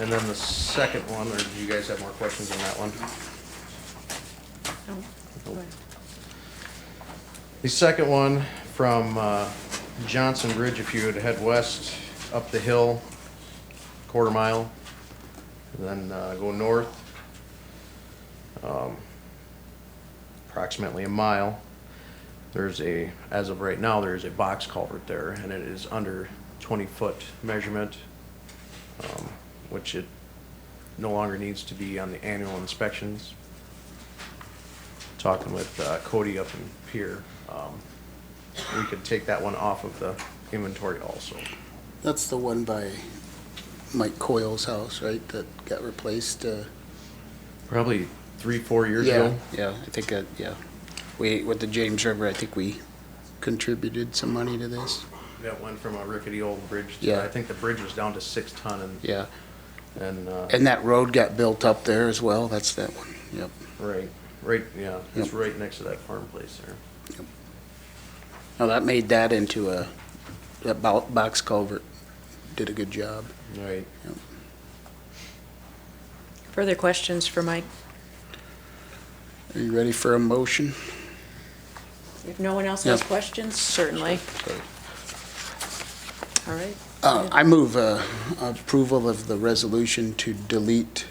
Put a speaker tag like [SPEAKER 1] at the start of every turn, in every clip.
[SPEAKER 1] And then the second one, or do you guys have more questions on that one?
[SPEAKER 2] Nope.
[SPEAKER 1] The second one from uh, Johnson Bridge, if you would head west up the hill, quarter mile, and then uh, go north. um, Approximately a mile. There's a, as of right now, there is a box culvert there, and it is under 20-foot measurement, um, which it no longer needs to be on the annual inspections talking with uh, Cody up in Pier, um, we could take that one off of the inventory also.
[SPEAKER 3] That's the one by Mike Coyle's house, right, that got replaced, uh?
[SPEAKER 1] Probably three, four years
[SPEAKER 3] Yeah,
[SPEAKER 1] ago.
[SPEAKER 3] yeah, I think, that- yeah. We, with the James River, I think we contributed some money to this,
[SPEAKER 1] That went from a rickety old bridge to,
[SPEAKER 3] Yeah.
[SPEAKER 1] I think the bridge was down to six ton and,
[SPEAKER 3] yeah.
[SPEAKER 1] and, uh,
[SPEAKER 3] And that road got built up there as well, that's that one, yep.
[SPEAKER 1] right, right, yeah, it's
[SPEAKER 3] Yep.
[SPEAKER 1] right next to that farm place there.
[SPEAKER 3] Now, that made that into a, that bo- box culvert did a good job.
[SPEAKER 1] Right.
[SPEAKER 2] Further questions for Mike?
[SPEAKER 3] Are you ready for a motion?
[SPEAKER 2] If no one else has
[SPEAKER 3] Yeah.
[SPEAKER 2] questions, certainly. All right.
[SPEAKER 3] Uh, I move uh, approval of the resolution to delete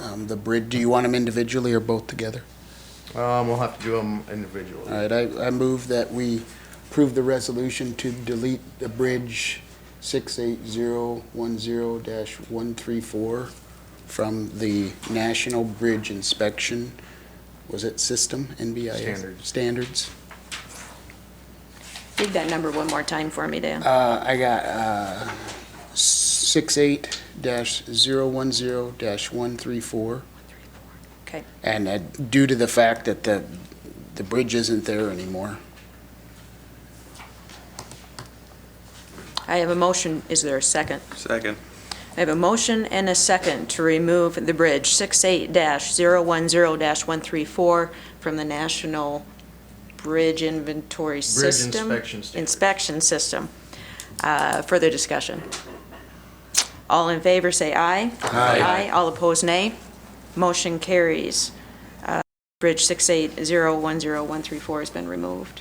[SPEAKER 3] um, the bridge. Do you want them individually or both together?
[SPEAKER 1] Um, we'll have to do them
[SPEAKER 3] All
[SPEAKER 1] individually.
[SPEAKER 3] right, I, I move that we approve the resolution to delete the bridge 68010-134 from the National Bridge Inspection, was it system, NBIS?
[SPEAKER 1] Standards.
[SPEAKER 3] Standards.
[SPEAKER 2] Read that number one more time for me, Dan.
[SPEAKER 3] Uh, I got, uh, six-eight dash zero-one-zero dash one-three-four.
[SPEAKER 2] Okay.
[SPEAKER 3] And uh, due to the fact that the, the bridge isn't there anymore.
[SPEAKER 2] I have a motion. Is there a second?
[SPEAKER 4] Second.
[SPEAKER 2] I have a motion and a second to remove the bridge 68-010-134 from the National Bridge Inventory System.
[SPEAKER 1] inspection standard.
[SPEAKER 2] Inspection system. Uh, Further discussion. All in favor, say aye. Aye. All opposed, nay. Motion carries. Uh, Bridge 68-010-134 has been removed.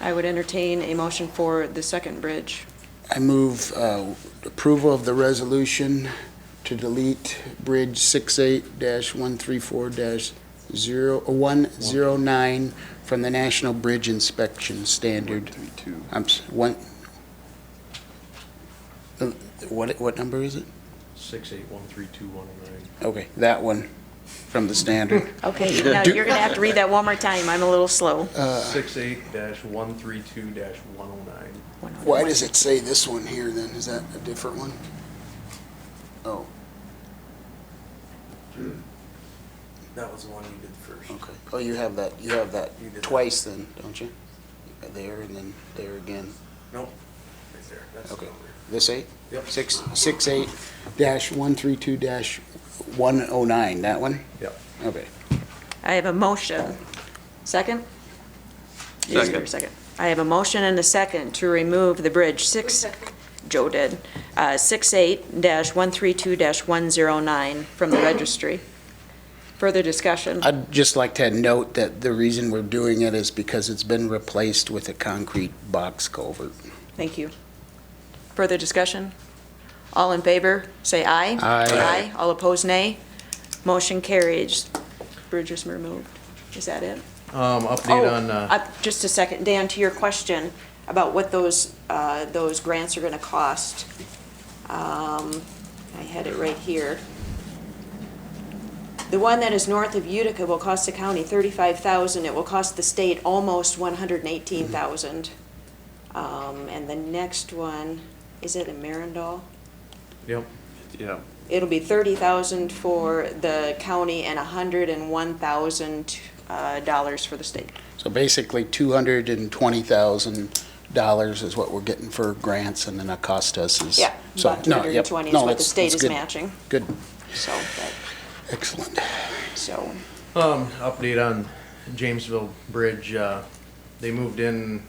[SPEAKER 2] I would entertain a motion for the second bridge.
[SPEAKER 3] I move uh, approval of the resolution to delete Bridge 68-134-0109 from the National Bridge Inspection Standard.
[SPEAKER 4] Three, two.
[SPEAKER 3] I'm, s- one, Uh, what, what number is it?
[SPEAKER 1] Six, eight, one, three, two, one, oh nine.
[SPEAKER 3] Okay, that one, from the standard.
[SPEAKER 2] Okay, now you're going to have to read that one more time. I'm a little slow.
[SPEAKER 3] Uh,
[SPEAKER 1] Six, eight dash one, three, two dash one oh nine.
[SPEAKER 3] Why does it say this one here then? Is that a different one? Oh,
[SPEAKER 1] That was the one you did first.
[SPEAKER 3] okay. Oh, you have that, you have that
[SPEAKER 1] You did that.
[SPEAKER 3] twice then, don't you? There and then there again.
[SPEAKER 1] Nope, right there, that's
[SPEAKER 3] Okay. This eight?
[SPEAKER 1] Yep.
[SPEAKER 3] Six, six eight dash one three two dash one oh nine, that one?
[SPEAKER 1] Yep.
[SPEAKER 3] Okay.
[SPEAKER 2] I have a motion. Second? Is there a
[SPEAKER 4] Second.
[SPEAKER 2] Second. I have a motion and a second to remove the bridge six, Joe did, uh, six eight dash one three two dash one zero nine from the registry. Further discussion.
[SPEAKER 3] I'd just like to note that the reason we're doing it is because it's been replaced with a concrete box culvert.
[SPEAKER 2] Thank you. Further discussion? All in favor, say aye.
[SPEAKER 3] Aye.
[SPEAKER 2] Aye. All opposed, nay. Motion carries. Bridge is removed. Is that it?
[SPEAKER 1] Um, update on, uh.
[SPEAKER 2] Oh, up- Just a second, Dan, to your question about what those, uh, those grants are gonna cost. Um, I had it right here. The one that is north of Utica will cost the county thirty-five thousand, it will cost the state almost one hundred and eighteen thousand. Um, and the next one, is it in Marindal?
[SPEAKER 1] Yep.
[SPEAKER 4] Yeah.
[SPEAKER 2] It'll be thirty thousand for the county and a hundred and one thousand, uh, dollars for the state.
[SPEAKER 3] So basically, two hundred and twenty thousand dollars is what we're getting for grants, and then it cost us is.
[SPEAKER 2] Yeah,
[SPEAKER 3] so,
[SPEAKER 2] about
[SPEAKER 3] no, yep,
[SPEAKER 2] 220 is
[SPEAKER 3] no,
[SPEAKER 2] what the
[SPEAKER 3] that's-
[SPEAKER 2] state
[SPEAKER 3] that's
[SPEAKER 2] is
[SPEAKER 3] good.
[SPEAKER 2] matching,
[SPEAKER 3] Good,
[SPEAKER 2] so, that-
[SPEAKER 3] excellent.
[SPEAKER 2] so,
[SPEAKER 1] Um, update on Jamesville Bridge, uh, they moved in